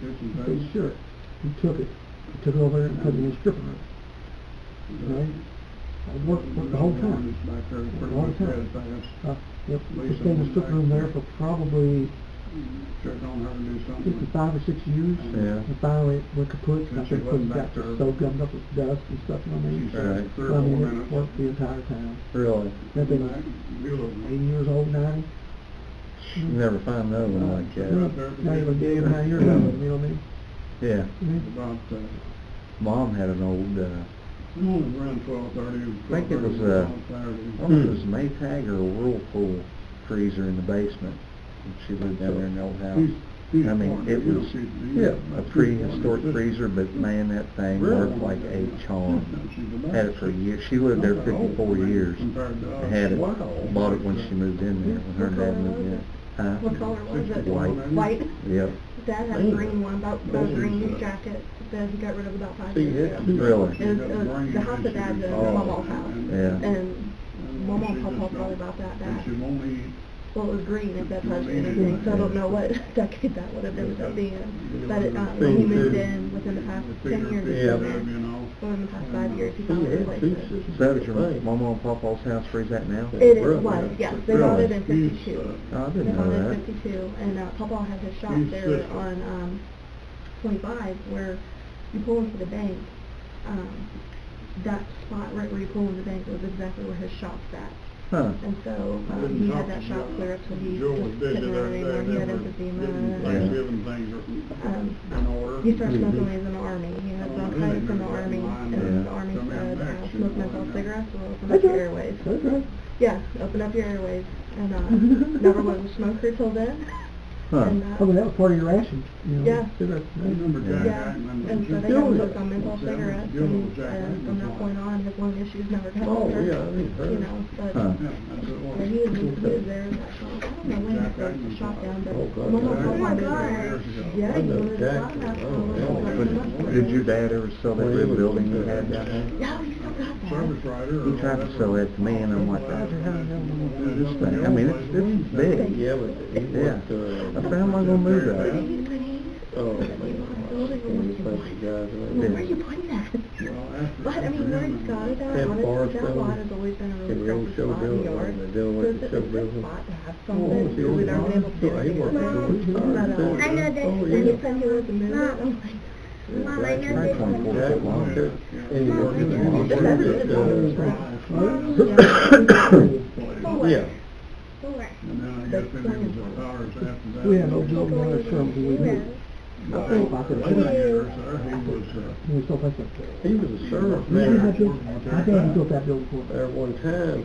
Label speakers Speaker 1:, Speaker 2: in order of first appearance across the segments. Speaker 1: There's some
Speaker 2: Pretty
Speaker 1: votes.
Speaker 2: sure. He took it. He took it over there and put it in a stripper. Right? I worked, worked the whole time.
Speaker 1: Back there,
Speaker 2: Worked
Speaker 1: pretty
Speaker 2: the whole
Speaker 1: much
Speaker 2: time.
Speaker 1: everything.
Speaker 2: Uh, Yep,
Speaker 1: Lisa
Speaker 2: it's been a strip room there for probably
Speaker 1: Sure don't have to do something.
Speaker 2: fifty-five or six years.
Speaker 1: Yeah.
Speaker 2: And finally, it went kaput, and I
Speaker 1: Since you
Speaker 2: think when
Speaker 1: wasn't
Speaker 2: it
Speaker 1: back
Speaker 2: got
Speaker 1: there.
Speaker 2: so gummed up with dust and stuff, you know what I mean?
Speaker 1: She said
Speaker 3: Right.
Speaker 1: three or
Speaker 2: I
Speaker 1: four
Speaker 2: mean, it
Speaker 1: minutes.
Speaker 2: Worked the entire town.
Speaker 3: Really?
Speaker 2: They've been eighty
Speaker 1: Beautiful.
Speaker 2: years old, ninety.
Speaker 3: You
Speaker 2: Mm-hmm.
Speaker 3: never find another one like
Speaker 2: No,
Speaker 3: that.
Speaker 2: Not even day or night, you know what I mean? Mm-hmm.
Speaker 3: Yeah.
Speaker 2: Mhm.
Speaker 1: About, uh,
Speaker 3: Mom had an old, uh,
Speaker 1: it was around twelve thirty.
Speaker 3: I think it was, uh, I don't know if it was a
Speaker 1: Hmm.
Speaker 3: Maytag or a Whirlpool freezer in the basement. And She lived down there in the old house. I mean, it was, yeah, a prehistoric freezer, but man, that thing worked like a charm. Had it for a year. She lived there fifty-four years. Had it, bought it when she moved in there, when her dad moved in. Huh?
Speaker 4: What color was it?
Speaker 3: Uh, White. Oh.
Speaker 4: White?
Speaker 3: Yep.
Speaker 4: Dad had a green one, about, about a green jacket, that he got rid of about five years ago.
Speaker 3: Really?
Speaker 4: It
Speaker 1: uh,
Speaker 4: was, it was uh, the house that Dad lived in, my mom's house.
Speaker 3: Yeah.
Speaker 4: And my mom and papa thought about that back. Well, it was green at that time,
Speaker 1: Mhm.
Speaker 4: so I don't know what decade that would have ended up being. But it, uh, when he moved in, within the past ten years, he
Speaker 3: Yeah.
Speaker 4: lived there. within the past
Speaker 1: uh,
Speaker 4: five years, he found a place.
Speaker 3: Is that at your mama and papa's house freeze that now?
Speaker 4: It is, was, yes, they bought it in
Speaker 1: Really?
Speaker 4: fifty-two.
Speaker 3: Oh, I
Speaker 4: They
Speaker 3: didn't
Speaker 4: bought
Speaker 3: know
Speaker 4: it
Speaker 3: that.
Speaker 4: in fifty-two, and, uh, papa had his shop
Speaker 1: His
Speaker 4: there
Speaker 1: sister.
Speaker 4: on, um, twenty-five, where you pull into the bank, um, that spot right where you pull into the bank was exactly where his shop's at.
Speaker 3: Huh.
Speaker 4: And so, um, he had that shop clear up to he
Speaker 1: Joel
Speaker 4: just
Speaker 1: did it
Speaker 4: couldn't run
Speaker 1: every
Speaker 4: anymore,
Speaker 1: day,
Speaker 4: he had
Speaker 1: never didn't
Speaker 4: emphysema.
Speaker 3: Yeah.
Speaker 1: Thanksgiving things
Speaker 4: Um,
Speaker 1: are in order.
Speaker 4: He started smoking when he was in the army, he had
Speaker 1: Oh,
Speaker 4: bronchitis in the
Speaker 1: really?
Speaker 4: army,
Speaker 1: Yeah.
Speaker 4: and the army
Speaker 1: Come in
Speaker 4: said, uh,
Speaker 1: next, you
Speaker 4: smoke
Speaker 1: know,
Speaker 4: menthol
Speaker 1: and-
Speaker 4: cigarettes will open up your airways.
Speaker 2: That's right.
Speaker 4: Yeah, open up your airways, and, uh, never was a smoker till then.
Speaker 3: Huh.
Speaker 4: And, uh,
Speaker 2: Oh, but that was part of your ration, you know?
Speaker 4: Yeah.
Speaker 2: cigarettes,
Speaker 1: I
Speaker 2: right?
Speaker 1: remember Jack
Speaker 4: Yeah,
Speaker 1: Ackman.
Speaker 4: and so they got him hooked on menthol cigarettes, and, uh, from that point on, his lung issues never got
Speaker 3: Oh,
Speaker 4: better,
Speaker 3: yeah, I think
Speaker 4: you know, but,
Speaker 3: Huh.
Speaker 1: Yeah, that's what it was.
Speaker 4: Yeah, he was just moved there, and that's all. I don't know when that first shot down, but. my mom-
Speaker 1: Oh, my
Speaker 4: God.
Speaker 1: God.
Speaker 4: Yeah, he
Speaker 3: I know
Speaker 4: was
Speaker 3: Jack.
Speaker 4: shot down.
Speaker 3: Oh, yeah. Did your dad ever sell that red building you had down there?
Speaker 4: Yeah, he still got that.
Speaker 1: Service rider. or
Speaker 3: He tried to sell that to me, and I'm like,
Speaker 1: whatever.
Speaker 3: this thing, I mean, it's, it's big.
Speaker 4: Yeah,
Speaker 3: but Yeah. I said, how am I gonna move that?
Speaker 4: Oh, Well, where you putting that?
Speaker 1: Well, after-
Speaker 4: But, I mean, where it's got it at,
Speaker 3: That
Speaker 4: honestly,
Speaker 3: bar's
Speaker 4: that
Speaker 3: gone.
Speaker 4: lot has always been a
Speaker 3: And
Speaker 4: really
Speaker 3: the old
Speaker 4: precious
Speaker 3: show
Speaker 4: spot in
Speaker 3: building,
Speaker 4: the yard.
Speaker 3: the
Speaker 4: So
Speaker 3: deal with
Speaker 4: it's
Speaker 3: the
Speaker 4: a
Speaker 3: show
Speaker 4: good
Speaker 3: building.
Speaker 4: spot to have
Speaker 3: Oh,
Speaker 4: something,
Speaker 3: it's the
Speaker 4: so we've
Speaker 3: old
Speaker 4: never been able to.
Speaker 3: barn. Yeah, he
Speaker 4: do it.
Speaker 3: worked there. He hired
Speaker 4: But, uh,
Speaker 3: somebody.
Speaker 4: I know that,
Speaker 3: Oh,
Speaker 4: when he
Speaker 3: yeah.
Speaker 4: said he was to move it, I'm like, Mom, I know this.
Speaker 3: Mom,
Speaker 4: one.
Speaker 3: I
Speaker 1: Oh, yeah.
Speaker 3: know And you
Speaker 4: Mom, I
Speaker 3: work in the
Speaker 4: know this.
Speaker 3: office,
Speaker 4: That's
Speaker 3: it's,
Speaker 4: just all it's
Speaker 3: uh,
Speaker 4: like.
Speaker 3: Huh?
Speaker 4: Mom, yeah. Four.
Speaker 3: Yeah.
Speaker 4: Four.
Speaker 1: And then I guess then it was the powers after that.
Speaker 2: We had old Joe Miller from who we knew.
Speaker 1: Well,
Speaker 2: I think about that.
Speaker 1: later years there, he was, uh,
Speaker 2: He was so fussed up.
Speaker 3: He was a sheriff
Speaker 2: You see how
Speaker 3: there,
Speaker 2: big, how big he built that building for?
Speaker 3: there one time.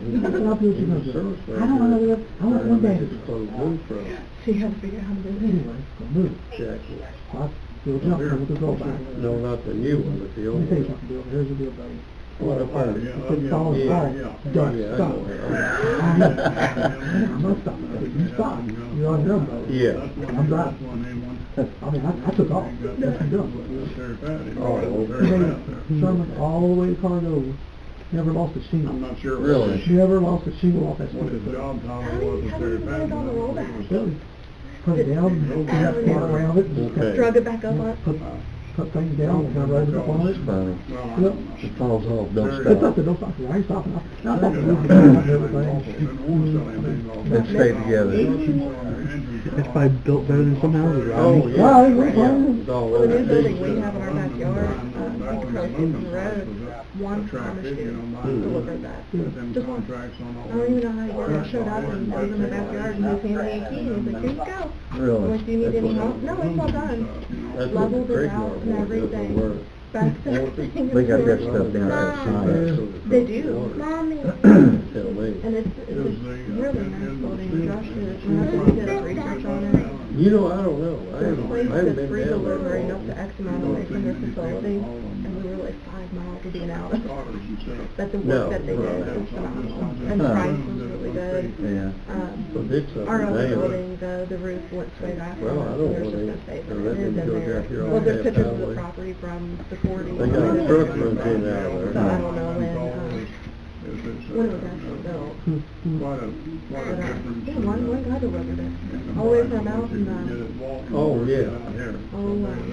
Speaker 2: You
Speaker 3: He
Speaker 2: know,
Speaker 3: was
Speaker 2: that's what I built you
Speaker 3: a
Speaker 2: up.
Speaker 3: sheriff
Speaker 2: I
Speaker 3: right
Speaker 2: don't
Speaker 3: there.
Speaker 2: know that- I want one
Speaker 3: There,
Speaker 2: day.
Speaker 3: he was closed in from
Speaker 4: So you have to figure out how to do it.
Speaker 2: Anyway, so move.
Speaker 3: Jack.
Speaker 2: Well, Bill Johnson was a gold miner.
Speaker 3: No, not the new one, but the
Speaker 2: Let me
Speaker 3: old
Speaker 2: tell you something,
Speaker 3: one.
Speaker 2: Bill, here's the deal, buddy.
Speaker 3: What up
Speaker 1: oh,
Speaker 3: on
Speaker 1: yeah,
Speaker 3: it?
Speaker 1: oh,
Speaker 2: Put
Speaker 1: yeah,
Speaker 2: dollars
Speaker 1: yeah,
Speaker 2: by,
Speaker 1: yeah.
Speaker 2: done,
Speaker 3: Yeah, I
Speaker 2: stop.
Speaker 3: know.
Speaker 2: I know, stop, you stop, you're on your own, buddy.
Speaker 3: Yeah.
Speaker 1: That's one-
Speaker 2: I'm driving.
Speaker 1: that's one they want.
Speaker 2: I mean, I, I took off, that's you done.
Speaker 1: Very bad. It
Speaker 3: Oh,
Speaker 1: was
Speaker 3: okay.
Speaker 1: very bad there.
Speaker 2: Sherman all the way to Cardova, never lost a
Speaker 1: I'm
Speaker 2: single.
Speaker 1: not sure.
Speaker 3: Really?
Speaker 2: She never lost a single off that
Speaker 1: What his
Speaker 2: stupid
Speaker 1: job
Speaker 4: How
Speaker 1: title
Speaker 4: do you-
Speaker 1: was,
Speaker 4: how
Speaker 1: if
Speaker 4: do
Speaker 1: they
Speaker 4: you
Speaker 1: had
Speaker 4: put it on the rollback?
Speaker 2: building. Put it down, and that part around it, and just
Speaker 3: Okay.
Speaker 4: Drug it back up on.
Speaker 2: put, put things down, and I rode it up on it.
Speaker 3: Funny.
Speaker 1: Well,
Speaker 3: It falls off, don't
Speaker 2: It's up
Speaker 3: stop.
Speaker 2: to no fucking, I ain't stopping, I- I
Speaker 1: I
Speaker 2: thought
Speaker 1: don't
Speaker 2: the
Speaker 1: know.
Speaker 2: movie was
Speaker 3: Let's stay together.
Speaker 1: If
Speaker 2: I built better than some houses, I
Speaker 3: Oh,
Speaker 2: mean-
Speaker 3: yeah.
Speaker 2: Why, why-
Speaker 3: Yeah, it's all
Speaker 4: Well, the new
Speaker 3: over.
Speaker 4: building we have in our backyard, uh, across from the road, one farmer's shoe delivered that. Just one. I don't even know how he worked, it showed up and it was in the backyard and he was handing me a key, and he was like, here you go.
Speaker 3: Really?
Speaker 4: Like, do you need
Speaker 3: That's
Speaker 4: any
Speaker 3: what- Hmm.
Speaker 4: help? No, it's all done.
Speaker 3: That's what the
Speaker 4: Leveled it
Speaker 3: Craig
Speaker 4: out
Speaker 3: Yard
Speaker 4: and
Speaker 3: was, that's what we're-
Speaker 4: everything. Back everything.
Speaker 3: They got
Speaker 4: is
Speaker 3: that
Speaker 4: there.
Speaker 3: stuff down there,
Speaker 4: Mom.
Speaker 3: it's
Speaker 2: Yeah.
Speaker 3: not-
Speaker 4: They do.
Speaker 3: Tell me.
Speaker 4: And it's, it's a really nice building, Josh, did- when I first did his research on it.
Speaker 3: You know, I don't know. I
Speaker 4: There's a place
Speaker 3: haven't, I haven't
Speaker 4: that's free
Speaker 3: been down there.
Speaker 4: delivery
Speaker 3: in a
Speaker 4: up to
Speaker 3: while.
Speaker 4: X amount away from their facility, and we were like five miles to be an hour. But the
Speaker 3: No,
Speaker 4: work that they did
Speaker 3: right.
Speaker 4: was phenomenal, and the
Speaker 3: Huh.
Speaker 4: price was really good.
Speaker 3: Yeah. Well,
Speaker 4: Um,
Speaker 3: it's up
Speaker 4: our old
Speaker 3: there.
Speaker 4: building, though, the roof went straight off.
Speaker 3: Well, I don't
Speaker 4: There's just
Speaker 3: wanna-
Speaker 4: no
Speaker 3: I
Speaker 4: saving it.
Speaker 3: let
Speaker 4: It is
Speaker 3: them
Speaker 4: in
Speaker 3: go
Speaker 4: there.
Speaker 3: down here on
Speaker 4: Well, there's
Speaker 3: that
Speaker 4: pictures of the
Speaker 3: highway.
Speaker 4: property from the forties.
Speaker 3: They got
Speaker 4: Yeah.
Speaker 3: truck runs in out there.
Speaker 4: So I don't know when, um, when it was actually built.
Speaker 3: Hmm.
Speaker 1: Quite a, quite a
Speaker 4: But, uh,
Speaker 1: difference.
Speaker 4: yeah,
Speaker 1: in
Speaker 4: one,
Speaker 1: the-
Speaker 4: one guy delivered
Speaker 1: in
Speaker 4: it,
Speaker 1: the
Speaker 4: all the way
Speaker 1: price
Speaker 4: from
Speaker 1: at which
Speaker 4: out
Speaker 1: you
Speaker 4: in,
Speaker 1: can get
Speaker 4: uh,
Speaker 1: it walking
Speaker 3: Oh,
Speaker 1: versus
Speaker 3: yeah.
Speaker 1: out here.
Speaker 4: Oh, wow.